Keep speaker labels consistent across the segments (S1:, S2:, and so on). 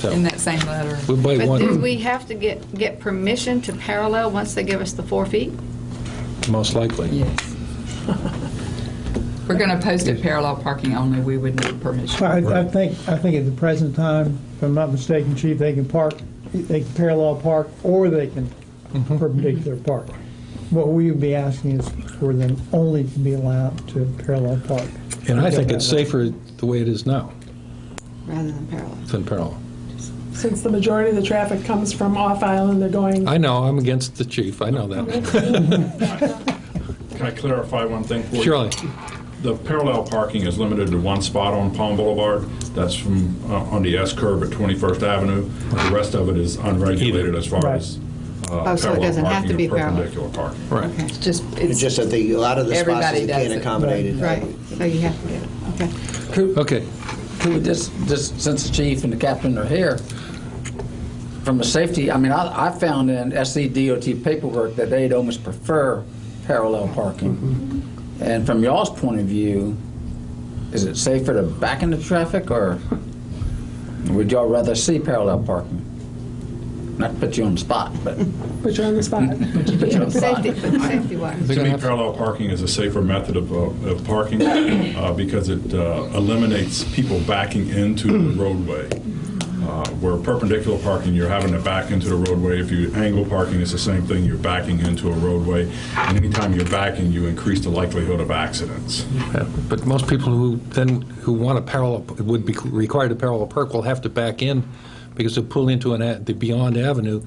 S1: So-
S2: in that same letter.
S1: We might
S3: But do
S1: want,
S3: we have to get, get permission to parallel once they give us the four feet?
S1: most likely.
S2: Yes. We're going to post it parallel parking only, we would need permission.
S4: Well, I, I
S1: Right.
S4: think, I think at the present time, if I'm not mistaken, chief, they can park, they can parallel park, or they can
S1: Mm-hmm.
S4: perpendicular park. What we would be asking is for them only to be allowed to parallel park.
S1: And I think it's safer the way it is now
S3: Rather than parallel.
S1: than parallel.
S5: Since the majority of the traffic comes from off island, they're going,
S1: I know, I'm against the chief, I know that.
S6: Can I clarify one thing for you?
S1: Surely,
S6: The parallel parking is limited to one spot on Palm Boulevard. That's from, uh, on the S curve at 21st Avenue. The rest of it is unregulated as far as uh,
S3: Oh, so it
S6: parallel
S3: doesn't have to
S6: parking
S3: be
S6: or
S3: parallel.
S6: perpendicular parking.
S1: right.
S2: It's just,
S7: It's
S2: it's,
S7: just that the, a lot of the spots
S2: Everybody
S7: you
S2: does
S7: can't
S2: it.
S7: accommodate it.
S3: Right, so you have to get it, okay.
S1: Okay,
S8: Could we just, just since the chief and the captain are here, from a safety, I mean, I, I found in E SCDOT paperwork that they'd almost prefer parallel parking. And from y'all's point of view, is it safer to back into traffic or would y'all rather see parallel parking? Not to put you on the spot, but
S5: put you on the spot.
S8: to put you on the spot.
S3: Safety, but safety wise.
S6: To me, parallel parking is a safer method of, uh, of parking uh, because it uh, eliminates people backing into the roadway. Uh, Where perpendicular parking, you're having to back into the roadway. If you angle parking, it's the same thing, you're backing into a roadway. And anytime you're backing, you increase the likelihood of accidents.
S1: Yeah, But most people who then, who want a parallel, would be required to parallel park will have to back in because they'll pull into an, a- the Beyond Avenue,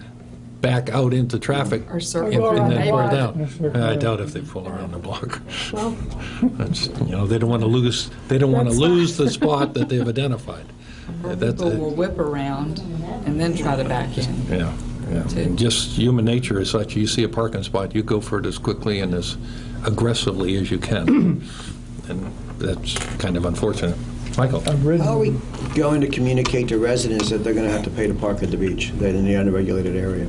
S1: back out into traffic.
S2: Or circle
S1: and- and
S5: around
S1: then
S5: the
S1: pull
S5: block.
S1: down.
S4: Or circle
S1: I
S4: around.
S1: doubt if they pull around the block.
S5: Well,
S1: That's- You know, they don't want to lose, they don't want to
S5: That spot.
S1: lose the spot that they've identified. Yeah, that's
S2: people
S1: it.
S2: will whip around and then try to back in.
S1: Yeah, yeah.
S2: Too.
S1: Just human nature is such, you see a parking spot, you go for it as quickly and as aggressively as you can. And that's kind of unfortunate. Michael?
S4: I've ridden-
S7: How are we going to communicate to residents that they're going to have to pay to park at the beach, that in the unregulated area?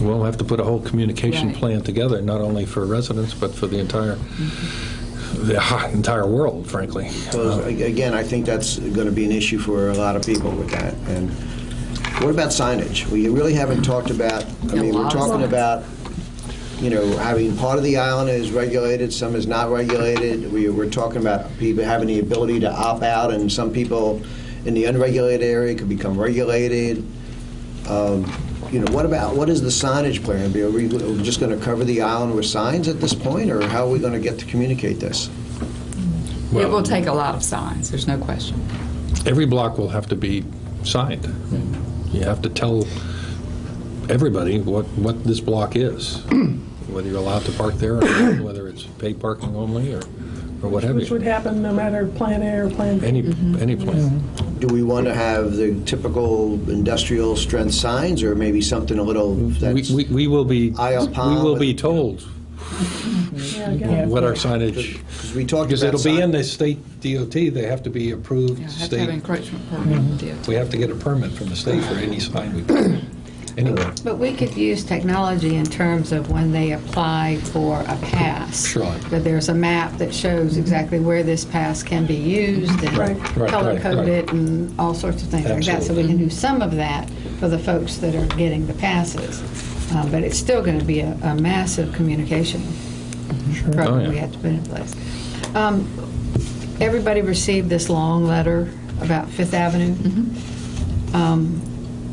S1: We'll have to put a whole communication
S2: Right.
S1: plan together, not only for residents, but for the entire, the ho- entire world, frankly.
S7: So a- again, I think that's going to be an issue for a lot of people with that. And what about signage? We really haven't talked about, I
S2: Yeah, a
S7: mean, we're
S2: lot of
S7: talking
S2: signs.
S7: about, you know, having part of the island is regulated, some is not regulated. We, we're talking about people having the ability to opt out, and some people in the unregulated area could become regulated. Um, You know, what about, what is the signage plan? Are we are we just going to cover the island with signs at this point, or how are we going to get to communicate this?
S2: It will take a lot of signs, there's no question.
S1: Every block will have to be signed. You have to tell everybody what, what this block is, whether you're allowed to park there, or not, whether it's paid parking only, or, or what have
S5: which would
S1: you.
S5: happen no matter Plan A or Plan B.
S1: Any, any plan.
S7: Do we want to have the typical industrial strength signs, or maybe something a little
S1: We,
S7: that's,
S1: we- we will be,
S7: Aisle
S1: we
S7: palm
S1: will
S7: with-
S1: be told
S5: Yeah, again.
S1: what our signage,
S7: because we talked
S1: because
S7: about
S1: it'll be in
S7: sign-
S1: the state DOT, they have to be
S2: Yeah,
S1: approved
S2: have to have
S1: state.
S2: encroachment permit, deal.
S1: We have to get a permit from the state for any sign we put anywhere.
S3: But we could use technology in terms of when they apply for a pass.
S1: Sure.
S3: That there's a map that shows exactly where this pass can be used
S5: Right.
S3: and
S5: Right,
S1: right,
S3: color coded
S1: right.
S3: and all sorts of things like that. So we can do some of that for the folks that are getting the passes. Uh, But it's still going to be a a massive communication
S1: Oh,
S3: program
S1: yeah.
S3: we have to put in place. Um, Everybody received this long letter about Fifth Avenue.
S1: Mm-hmm.
S3: Um,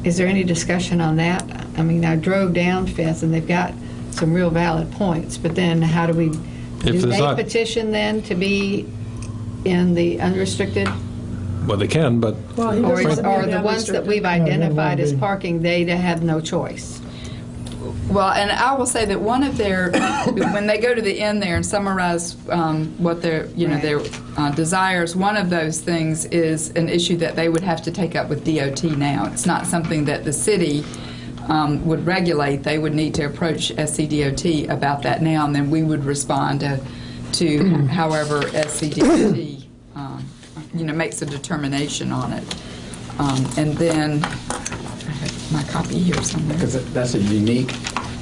S3: Is there any discussion on that? I mean, I drove down Fifth, and they've got some real valid points, but then how do we, do
S1: there's
S3: they
S1: not-
S3: petition then to be in the unrestricted?
S1: Well, they can, but
S5: Well, he
S3: Or
S5: doesn't
S3: is-
S5: want to be
S3: or the
S5: that
S3: ones that
S5: restricted.
S3: we've
S4: won't
S3: identified as
S4: be.
S3: parking, they have no choice?
S2: Well, and I will say that one of their, when they go to the end there and summarize um, what their, you know, their uh, desires, one of those things is an issue that they would have to take up with DOT now. It's not something that the city um, would regulate. They would need to approach SCDOT about that now, and then we would respond to, to however SCDOT, um, you know, makes a determination on it. Um, And then, I have my copy here somewhere.
S8: Because that's a unique,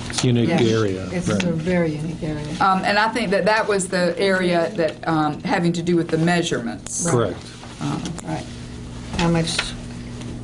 S1: it's a unique
S3: Yes.
S1: area.
S3: It's
S1: right.
S3: a very unique area.
S2: Um, And I think that that was the area that, um, having to do with the measurements.
S1: Correct.
S3: Right. How much